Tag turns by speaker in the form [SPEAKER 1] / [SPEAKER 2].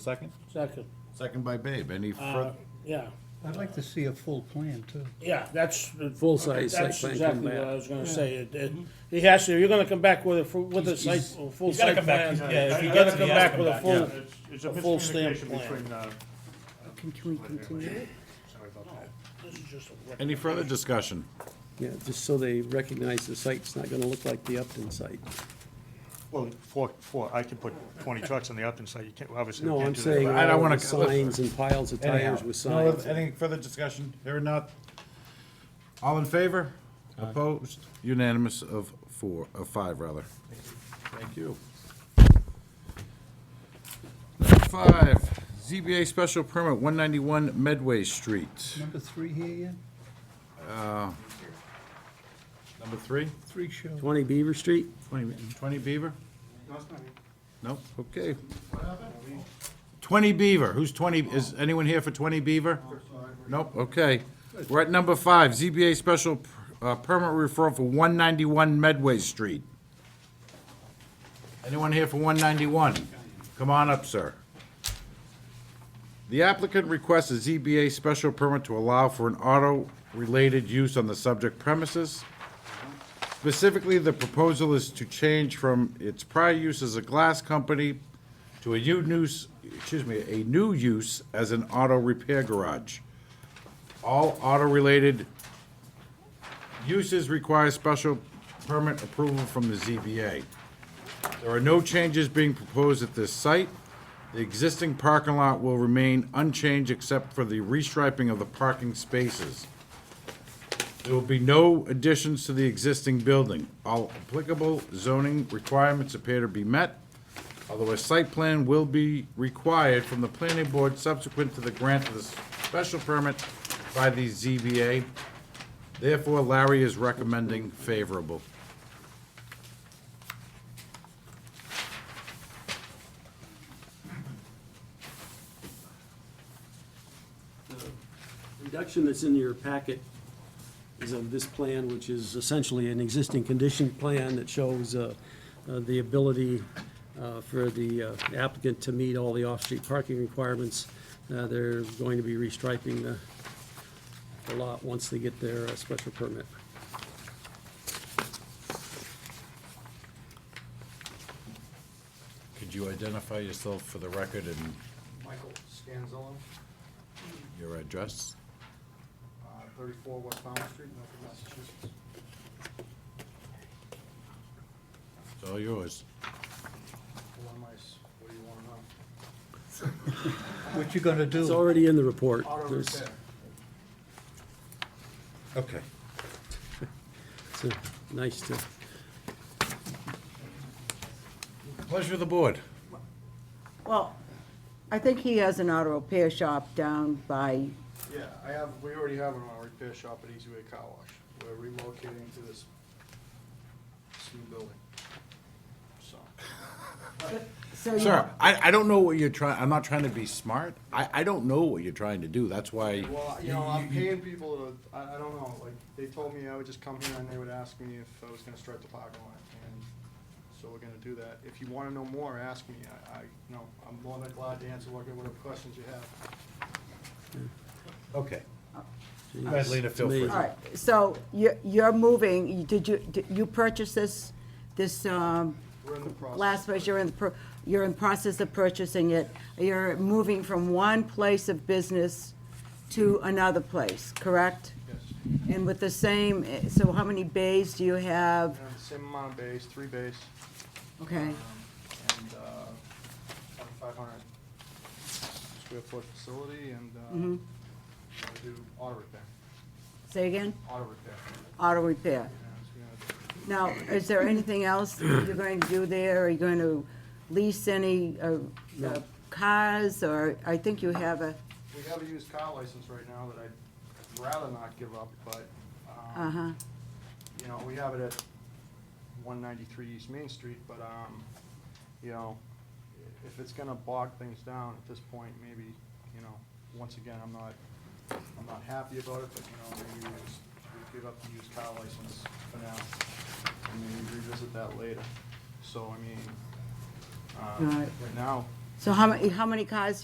[SPEAKER 1] Second?
[SPEAKER 2] Second,
[SPEAKER 3] Second by Babe. Any
[SPEAKER 2] uh,
[SPEAKER 3] further?
[SPEAKER 2] yeah,
[SPEAKER 4] I'd like to see a full plan, too.
[SPEAKER 2] yeah, that's,
[SPEAKER 5] Full-size site
[SPEAKER 2] that's
[SPEAKER 5] plan come
[SPEAKER 2] exactly what I
[SPEAKER 5] back.
[SPEAKER 2] was gonna say. It- it- He has to, you're gonna come back with a, fu- with a site, a full
[SPEAKER 6] He's gotta
[SPEAKER 2] site
[SPEAKER 6] come back.
[SPEAKER 2] plan.
[SPEAKER 6] He's-
[SPEAKER 2] Yeah,
[SPEAKER 6] he
[SPEAKER 2] you
[SPEAKER 6] has
[SPEAKER 2] gotta
[SPEAKER 6] to
[SPEAKER 2] come
[SPEAKER 6] come
[SPEAKER 2] back with a
[SPEAKER 6] back,
[SPEAKER 2] full,
[SPEAKER 1] It's a
[SPEAKER 2] A full stamp
[SPEAKER 1] miscommunication
[SPEAKER 2] plan.
[SPEAKER 1] between, uh.
[SPEAKER 7] Can, can we continue it?
[SPEAKER 1] sorry about that.
[SPEAKER 2] this is just a
[SPEAKER 3] Any further discussion?
[SPEAKER 5] Yeah, just so they recognize the site's not gonna look like the Upton site.
[SPEAKER 1] Well, four, four, I can put twenty trucks on the Upton site, you can't, obviously. we
[SPEAKER 5] No,
[SPEAKER 1] can't
[SPEAKER 5] I'm
[SPEAKER 1] do that.
[SPEAKER 5] saying
[SPEAKER 3] I don't
[SPEAKER 5] all
[SPEAKER 3] wanna-
[SPEAKER 5] the signs and piles of tires with
[SPEAKER 3] No,
[SPEAKER 5] signs.
[SPEAKER 3] Any further discussion? Here or not? All in favor? Opposed? Unanimous of four, of five, rather. Thank you. Number five, ZBA special permit, 191 Medway Street.
[SPEAKER 4] Number three here yet?
[SPEAKER 3] Number three?
[SPEAKER 4] Three show.
[SPEAKER 5] Twenty Beaver Street?
[SPEAKER 3] 20 20 Beaver? No, okay. 20 Beaver, who's 20, is anyone here for 20 Beaver? Nope, okay. We're at number five, ZBA special per- uh, permit referral for 191 Medway Street. Anyone here for 191? Come on up, sir. The applicant requests a ZBA special permit to allow for an auto-related use on the subject premises. Specifically, the proposal is to change from its prior use as a glass company to a new use, excuse me, a new use as an auto repair garage. All auto-related uses require special permit approval from the ZBA. There are no changes being proposed at this site. The existing parking lot will remain unchanged except for the restriping of the parking spaces. There will be no additions to the existing building. All applicable zoning requirements appear to be met, although a site plan will be required from the planning board subsequent to the grant of the special permit by the ZBA. Therefore, Larry is recommending favorable.
[SPEAKER 5] Reduction that's in your packet is of this plan, which is essentially an existing condition plan that shows uh, uh, the ability uh, for the uh, applicant to meet all the off-street parking requirements. Uh, They're going to be restriping the the lot once they get their uh, special permit.
[SPEAKER 3] Could you identify yourself for the record and
[SPEAKER 8] Michael Scanzillo,
[SPEAKER 3] your address?
[SPEAKER 8] uh, 34 West Palm Street, Milford, Massachusetts.
[SPEAKER 3] It's all yours.
[SPEAKER 8] Hold on, mice. What do you want to know?
[SPEAKER 4] What you gonna
[SPEAKER 5] It's
[SPEAKER 4] do?
[SPEAKER 5] already in the report.
[SPEAKER 8] Auto
[SPEAKER 5] There's-
[SPEAKER 8] repair.
[SPEAKER 3] Okay.
[SPEAKER 5] it's, uh, Nice to,
[SPEAKER 3] Pleasure of the board.
[SPEAKER 7] Well, I think he has an auto repair shop down by,
[SPEAKER 8] Yeah, I have, we already have an auto repair shop at Easy Way Car Wash. We're relocating to this, this new building. So,
[SPEAKER 7] so you,
[SPEAKER 3] Sir, I, I don't know what you're trying, I'm not trying to be smart. I, I don't know what you're trying to do. That's why.
[SPEAKER 8] well, you know, I'm paying people to, I, I don't know, like, they told me I would just come here and they would ask me if I was gonna strike the parking lot. And so we're gonna do that. If you want to know more, ask me. I, I, you know, I'm more than glad to answer whatever whatever questions you have.
[SPEAKER 3] Okay.
[SPEAKER 5] geez,
[SPEAKER 3] ahead, Lena,
[SPEAKER 5] it's
[SPEAKER 3] feel free.
[SPEAKER 5] amazing.
[SPEAKER 7] all right, so you're, you're moving, you- did you, did you purchase this, this, um,
[SPEAKER 8] We're in the process.
[SPEAKER 7] last place, you're in the, pro- you're in process of purchasing it, you're moving from one place of business to another place, correct?
[SPEAKER 8] Yes.
[SPEAKER 7] And with the same, eh, so how many bays do you have?
[SPEAKER 8] And Um, Same amount of bays, three bays,
[SPEAKER 7] Okay,
[SPEAKER 8] and uh, five hundred square foot facility, and uh, we do auto repair,
[SPEAKER 7] say again,
[SPEAKER 8] auto repair.
[SPEAKER 7] auto repair.
[SPEAKER 8] you know, so we're gonna-
[SPEAKER 7] Now, is there anything else you're going to do there? Are you going to lease any uh, uh, cars, or, I think you have a,
[SPEAKER 8] We have a used car license right now that I'd rather not give up, but, um,
[SPEAKER 7] uh-huh,
[SPEAKER 8] you know, we have it at one ninety-three East Main Street, but, um, you know, i- if it's gonna bog things down at this point, maybe, you know, once again, I'm not, I'm not happy about it, but, you know, maybe we just, we give up the used car license for now, and maybe revisit that later. So, I mean, um,
[SPEAKER 7] Right.
[SPEAKER 8] right now,
[SPEAKER 7] So how many, how many cars